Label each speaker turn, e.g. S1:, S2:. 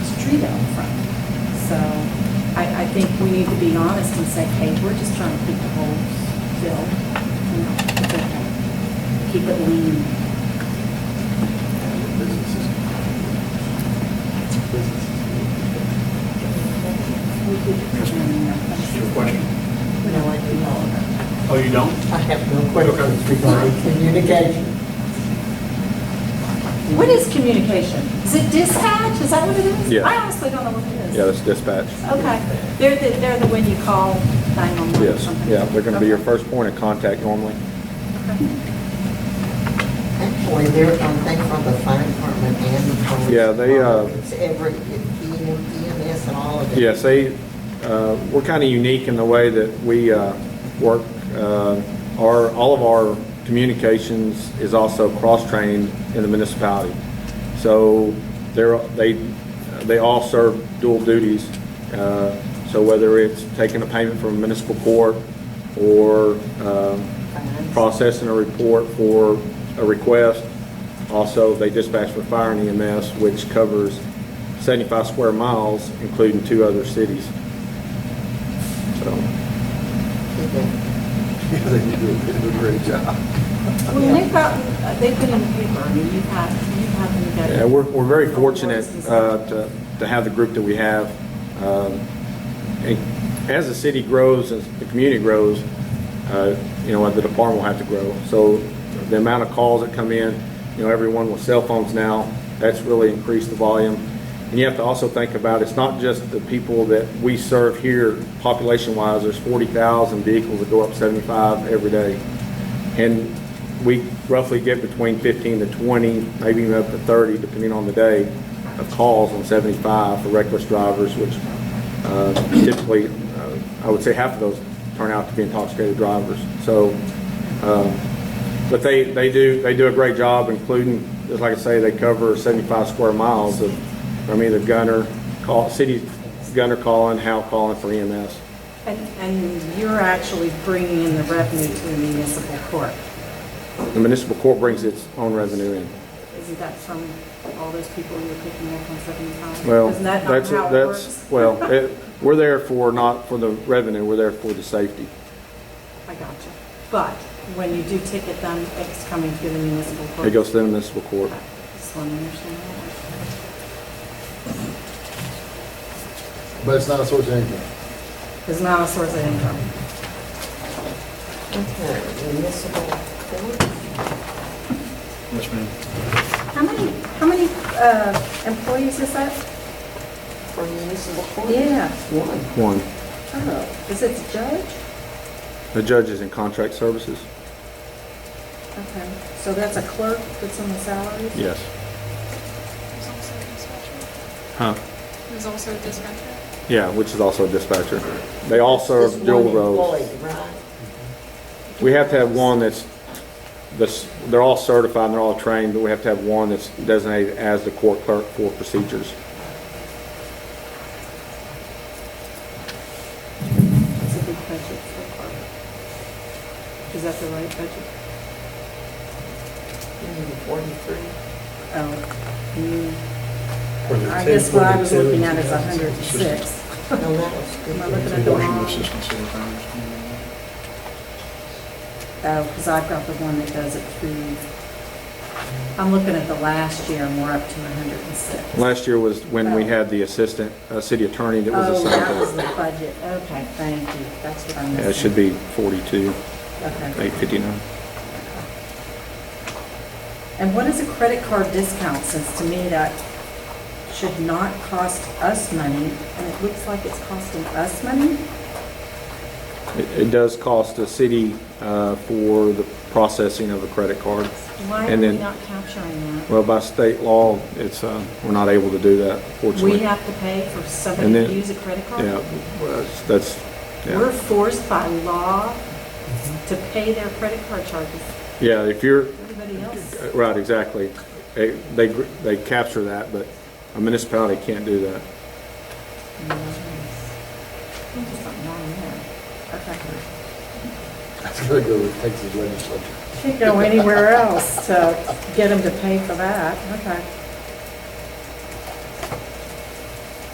S1: street out front. So I, I think we need to be honest and say, hey, we're just trying to keep the holes filled, you know, it's okay. Keep it lean.
S2: Businesses. Businesses.
S1: We could determine that.
S2: Your question?
S3: No, I do not.
S2: Oh, you don't?
S3: I have no questions regarding communication.
S1: What is communication? Is it dispatch? Is that what it is?
S4: Yeah.
S1: I honestly don't know what it is.
S4: Yeah, that's dispatch.
S1: Okay, they're, the- they're the one you call 911 or
S4: Yes,
S1: something?
S4: yeah, they're going to be your
S1: Okay.
S4: first point of contact normally.
S3: Actually, they're, I think, from the fire department and the police.
S4: Yeah, they, uh,
S3: department. It's every, E it's EMS and all of it.
S4: Yes, they, uh, we're kind of unique in the way that we uh, work. Uh, Our, all of our communications is also cross-trained in the municipality. So they're, they, they all serve dual duties. Uh, So whether it's taking a payment from municipal court or um,
S3: Fines.
S4: processing a report for a request. Also, they dispatch for fire and EMS, which covers 75 square miles, including two other cities. So,
S2: Yeah, they do a- they do a great job.
S1: Well, they've got, they've been uh, in the paper, I mean, you've had, you've had them go.
S4: yeah, we're, we're very fortunate uh, to, to have the group that we have. Um, and As the city grows, as the community grows, uh, you know, the department will have to grow. So the amount of calls that come in, you know, everyone with cell phones now, that's really increased the volume. And you have to also think about, it's not just the people that we serve here, population-wise, there's 40,000 vehicles that go up 75 every day. And we roughly get between 15 to 20, maybe even up to 30, depending on the day, of calls on 75 for reckless drivers, which uh, typically, uh, I would say half of those turn out to be intoxicated drivers. So, um, but they, they do, they do a great job, including, just like I say, they cover 75 square miles of, from either gunner, call, city gunner calling, Hal calling for E EMS.
S1: And, and you're actually bringing in the revenue to the municipal court.
S4: The municipal court brings its own revenue in.
S1: Isn't that from all those people you're picking up on 75?
S4: Well,
S1: Isn't that not
S4: that's,
S1: how it
S4: that's,
S1: works?
S4: well, it- we're there for, not for the revenue, we're there for the safety.
S1: I got you. But when you do ticket them, it's coming to the municipal court.
S4: It goes to the municipal court.
S1: Just want to understand that.
S2: But it's not a source of income.
S1: It's not a source of income.
S3: Okay, municipal court.
S2: Yes, ma'am.
S1: How many, how many uh, employees is that?
S3: For municipal court?
S1: Yeah.
S3: One.
S4: One,
S1: Oh, is it the judge?
S4: the judges in contract services?
S1: Okay, so that's a clerk that's on the salaries?
S4: Yes.
S5: There's also a dispatcher.
S4: Huh?
S5: There's also a dispatcher.
S4: Yeah, which is also a dispatcher. They all serve
S3: Just
S4: dual
S3: one
S4: roles.
S3: employee, right?
S4: We have to have one that's, that's, they're all certified and they're all trained, but we have to have one that's designated as the court clerk for procedures.
S1: It's a big budget for a clerk. Is that the right budget?
S3: Mm, Forty-three.
S4: Um,
S1: Oh, you,
S2: Or the
S1: I
S2: ten-
S1: guess what I was
S2: or the
S1: looking
S2: ten-
S1: at is 106.
S3: No, that was good.
S1: Am I looking at the
S2: Washington
S1: wrong?
S2: assistance sometimes.
S1: Oh, because I've got the one that does it through, I'm looking at the last year and we're up to 106.
S4: Last year was when we had the assistant, uh, city attorney that was
S1: Oh,
S4: assigned
S1: that was
S4: to
S1: the budget. Okay, thank you. That's what I'm
S4: Yeah,
S1: missing.
S4: It should be 42,
S1: Okay.
S4: 859.
S1: And what is a credit card discount, since to me that should not cost us money, and it looks like it's costing us money?
S4: It it does cost the city uh, for the processing of a credit card.
S1: Why are
S4: And
S1: we
S4: then-
S1: not capturing that?
S4: Well, by state law, it's, uh, we're not able to do that, fortunately.
S1: We have to pay for somebody
S4: And
S1: to
S4: then-
S1: use a credit card?
S4: Yeah, well, that's- that's,
S1: We're
S4: yeah.
S1: forced by law to pay their credit card charges.
S4: Yeah, if you're,
S1: Everybody else,
S4: right, exactly. They, they gr- they capture that, but a municipality can't do that.
S1: there's just something wrong there. Okay.
S2: That's gonna go with Texas legislature.
S1: Can't go anywhere else to get them to pay for that. Okay.